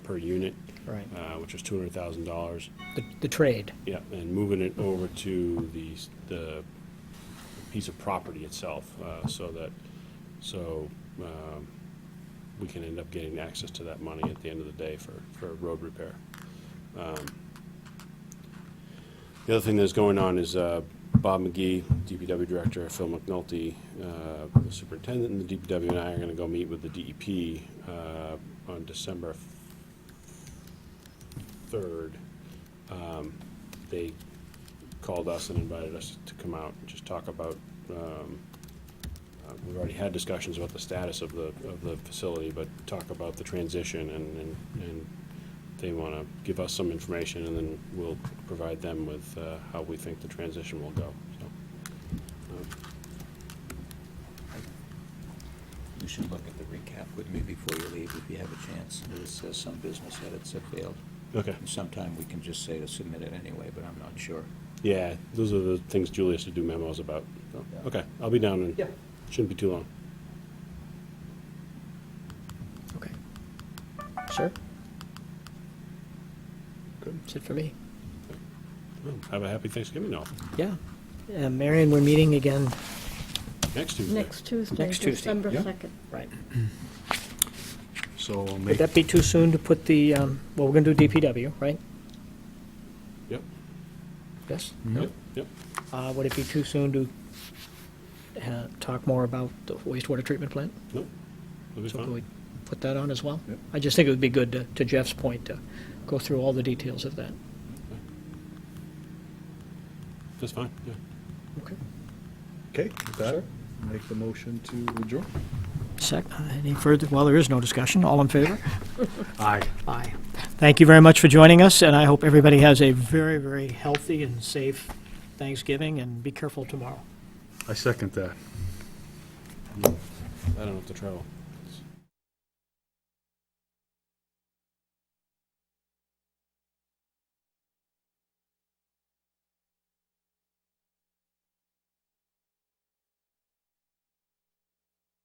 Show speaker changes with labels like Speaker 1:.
Speaker 1: per unit,
Speaker 2: Right.
Speaker 1: uh, which was two hundred thousand dollars.
Speaker 2: The, the trade.
Speaker 1: Yeah, and moving it over to the, s- the piece of property itself, uh, so that, so, um, we can end up getting access to that money at the end of the day for, for road repair. Um, The other thing that's going on is, uh, Bob McGee, DPW Director, Phil McNulty, uh, the Superintendent and the DPW and I are gonna go meet with the DEP, uh, on December third they called us and invited us to come out and just talk about, um, uh, we've already had discussions about the status of the, of the facility, but talk about the transition and, and, and they want to give us some information and then we'll provide them with, uh, how we think the transition will go, so.
Speaker 3: You should look at the recap with me before you leave if you have a chance. It says some business edits have failed.
Speaker 1: Okay.
Speaker 3: And sometime we can just say to submit it anyway, but I'm not sure.
Speaker 1: Yeah, those are the things Julie has to do memos about, so,
Speaker 3: Yeah.
Speaker 1: okay, I'll be down and
Speaker 2: Yeah.
Speaker 1: shouldn't be too long.
Speaker 2: Okay. Sure.
Speaker 1: Good.
Speaker 2: That's it for me.
Speaker 1: Well, Have a happy Thanksgiving all,
Speaker 2: Yeah. Uh, Marion, we're meeting again.
Speaker 1: next Tuesday.
Speaker 4: Next Tuesday,
Speaker 2: Next Tuesday,
Speaker 4: December
Speaker 3: yeah.
Speaker 4: 2nd.
Speaker 2: Right.
Speaker 5: So I'll
Speaker 2: Would
Speaker 5: make,
Speaker 2: that be too soon to put the, um, well, we're gonna do DPW, right?
Speaker 1: Yep,
Speaker 2: Yes?
Speaker 1: yep, yep.
Speaker 2: Uh, would it be too soon to, uh, talk more about the wastewater treatment plant?
Speaker 1: Nope. It'll be
Speaker 2: So
Speaker 1: fine.
Speaker 2: can we put that on as well?
Speaker 3: Yep.
Speaker 2: I just think it would be good, to- to Jeff's point, to go through all the details of that.
Speaker 1: That's fine, yeah.
Speaker 2: Okay.
Speaker 5: okay, with that, make the motion to adjourn.
Speaker 2: Sec, uh, any further, well, there is no discussion. All in favor?
Speaker 5: Aye.
Speaker 2: Aye. Thank you very much for joining us, and I hope everybody has a very, very healthy and safe Thanksgiving, and be careful tomorrow.
Speaker 5: I second that.
Speaker 1: I don't have to travel.